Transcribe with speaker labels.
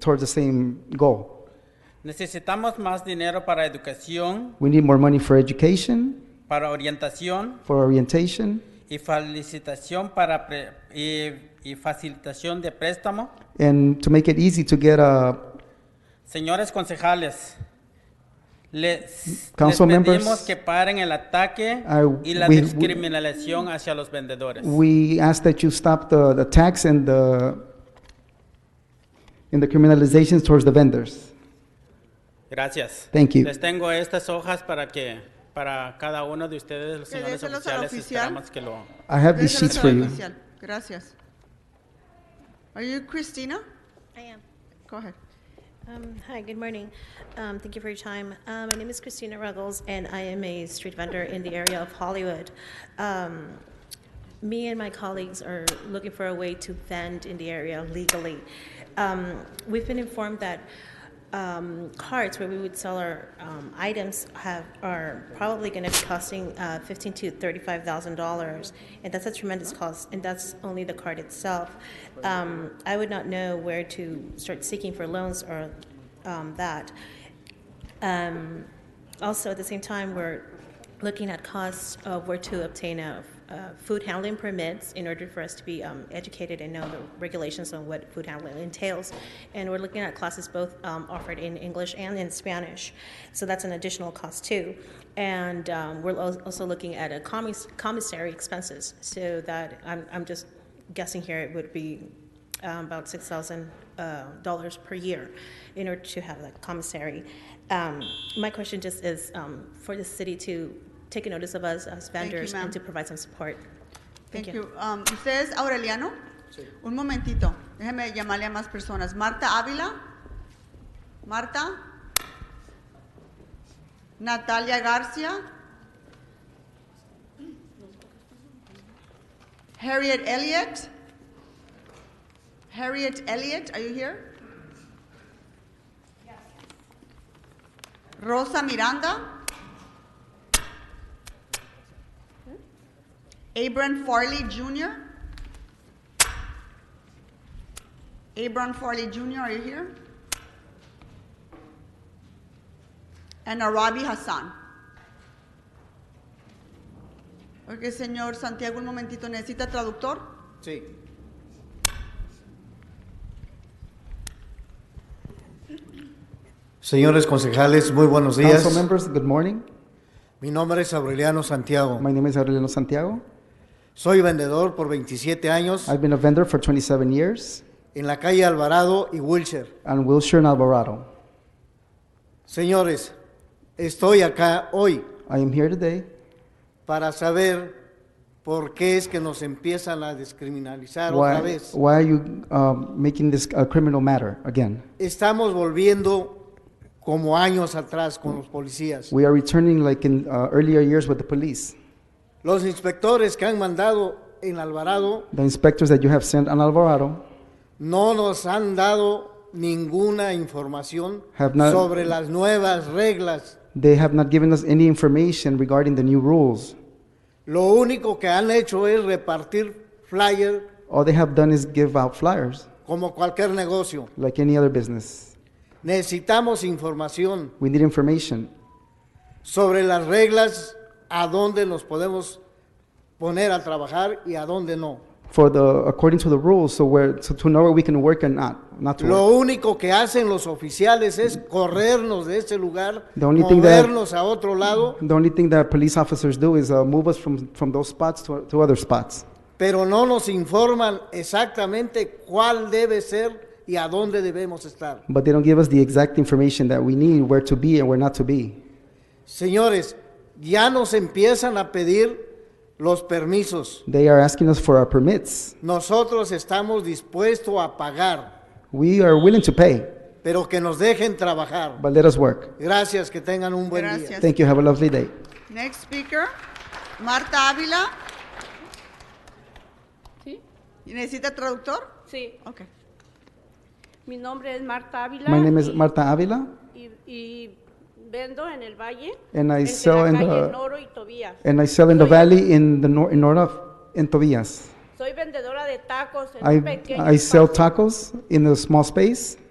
Speaker 1: towards the same goal.
Speaker 2: Necesitamos más dinero para educación,
Speaker 1: We need more money for education,
Speaker 2: para orientación
Speaker 1: for orientation,
Speaker 2: y felicitación para pre- y, y facilitación de préstamo.
Speaker 1: and to make it easy to get uh, a
Speaker 2: Señores concejales, les, les
Speaker 1: Council members,
Speaker 2: pedimos que paren el ataque
Speaker 1: I-
Speaker 2: y la
Speaker 1: we- we-
Speaker 2: discriminación hacia los vendedores.
Speaker 1: We ask that you stop the, the tax and the, and the criminalizations towards the vendors.
Speaker 2: Gracias.
Speaker 1: Thank you.
Speaker 2: Les tengo estas hojas para que para cada uno de ustedes, los
Speaker 3: Que
Speaker 2: señores
Speaker 3: déselos al
Speaker 2: oficiales,
Speaker 3: oficial.
Speaker 2: esperamos que lo
Speaker 1: I have these
Speaker 3: Déselos
Speaker 1: sheets
Speaker 3: al
Speaker 1: for you.
Speaker 3: oficial. Gracias. Are you Christina?
Speaker 4: I am.
Speaker 3: Go ahead.
Speaker 4: Um, Hi, good morning. Um, Thank you for your time. Uh, My name is Christina Ruggles, and I am a street vendor in the area of Hollywood. Um, Me and my colleagues are looking for a way to vend in the area legally. Um, We've been informed that um, carts where we would sell our um, items have, are probably going to be costing uh, fifteen to thirty-five thousand dollars, and that's a tremendous cost, and that's only the cart itself. Um, I would not know where to start seeking for loans or um, that. Um, also, at the same time, we're looking at costs of where to obtain a, uh food handling permits in order for us to be um, educated and know the regulations on what food handling entails. And we're looking at classes both um, offered in English and in Spanish, so that's an additional cost too. And um, we're al- also looking at a commis- commissary expenses, so that I'm, I'm just guessing here it would be um, about six thousand uh, dollars per year in order to have that commissary. Um, my question just is um, for the city to take a notice of us as
Speaker 3: Thank you,
Speaker 4: vendors
Speaker 3: ma'am.
Speaker 4: and to provide some support.
Speaker 3: Thank you. Um, ¿Usted es Aureliano? Un momentito. Déjeme llamarle a más personas. Marta Ávila. Marta. Natalia Garcia. Harriet Elliott. Harriet Elliott, are you here? Rosa Miranda. Abram Farley Jr. Abram Farley Jr., are you here? And Arabi Hassan. Ok, señor Santiago, un momentito, ¿necesita traductor?
Speaker 5: Sí. Señores concejales, muy buenos días.
Speaker 1: Council members, good morning.
Speaker 5: Mi nombre es Aureliano Santiago.
Speaker 1: My name is Aureliano Santiago.
Speaker 5: Soy vendedor por 27 años
Speaker 1: I've been a vendor for 27 years
Speaker 5: en la calle Alvarado y Wilshire.
Speaker 1: on Wilshire and Alvarado.
Speaker 5: Señores, estoy acá hoy
Speaker 1: I am here today
Speaker 5: para saber por qué es que nos empiezan a descriminalizar
Speaker 1: Why,
Speaker 5: otra vez.
Speaker 1: why are you um, making this a criminal matter again?
Speaker 5: Estamos volviendo como años atrás con los policías.
Speaker 1: We are returning like in uh, earlier years with the police.
Speaker 5: Los inspectores que han mandado en Alvarado
Speaker 1: The inspectors that you have sent on Alvarado
Speaker 5: no nos han dado ninguna información
Speaker 1: Have not-
Speaker 5: sobre las nuevas reglas.
Speaker 1: They have not given us any information regarding the new rules.
Speaker 5: Lo único que han hecho es repartir flyer
Speaker 1: All they have done is give out flyers
Speaker 5: como cualquier negocio.
Speaker 1: like any other business.
Speaker 5: Necesitamos información
Speaker 1: We need information
Speaker 5: sobre las reglas, a dónde nos podemos poner a trabajar y a dónde no.
Speaker 1: for the according to the rules so where so to know where we can work and not not to
Speaker 5: Lo
Speaker 1: work.
Speaker 5: único que hacen los oficiales es corrernos de ese lugar,
Speaker 1: The only thing that-
Speaker 5: movernos a otro lado,
Speaker 1: The only thing that police officers do is uh, move us from, from those spots to, to other spots.
Speaker 5: pero no nos informan exactamente cuál debe ser y a dónde debemos estar.
Speaker 1: But they don't give us the exact information that we need, where to be and where not to be.
Speaker 5: Señores, ya nos empiezan a pedir los permisos.
Speaker 1: They are asking us for our permits.
Speaker 5: Nosotros estamos dispuestos a pagar,
Speaker 1: We are willing to pay,
Speaker 5: pero que nos dejen trabajar.
Speaker 1: but let us work.
Speaker 5: Gracias, que tengan un buen día.
Speaker 3: Gracias.
Speaker 1: Thank you. Have a lovely day.
Speaker 3: Next speaker, Marta Ávila.
Speaker 6: Sí,
Speaker 3: ¿Y ¿Necesita traductor?
Speaker 6: sí.
Speaker 3: Ok.
Speaker 6: Mi nombre es Marta Ávila.
Speaker 1: My name is
Speaker 6: y-
Speaker 1: Marta Avila,
Speaker 6: Y, y vendo en el valle.
Speaker 1: And I
Speaker 6: entre
Speaker 1: sell
Speaker 6: la
Speaker 1: in
Speaker 6: calle
Speaker 1: the-
Speaker 6: Noro y Tobías.
Speaker 1: and I sell in the valley in the nor- in north of in Tobias.
Speaker 6: Soy vendedora de tacos en un
Speaker 1: I,
Speaker 6: pequeño
Speaker 1: I sell
Speaker 6: espacio.
Speaker 1: tacos in a small space.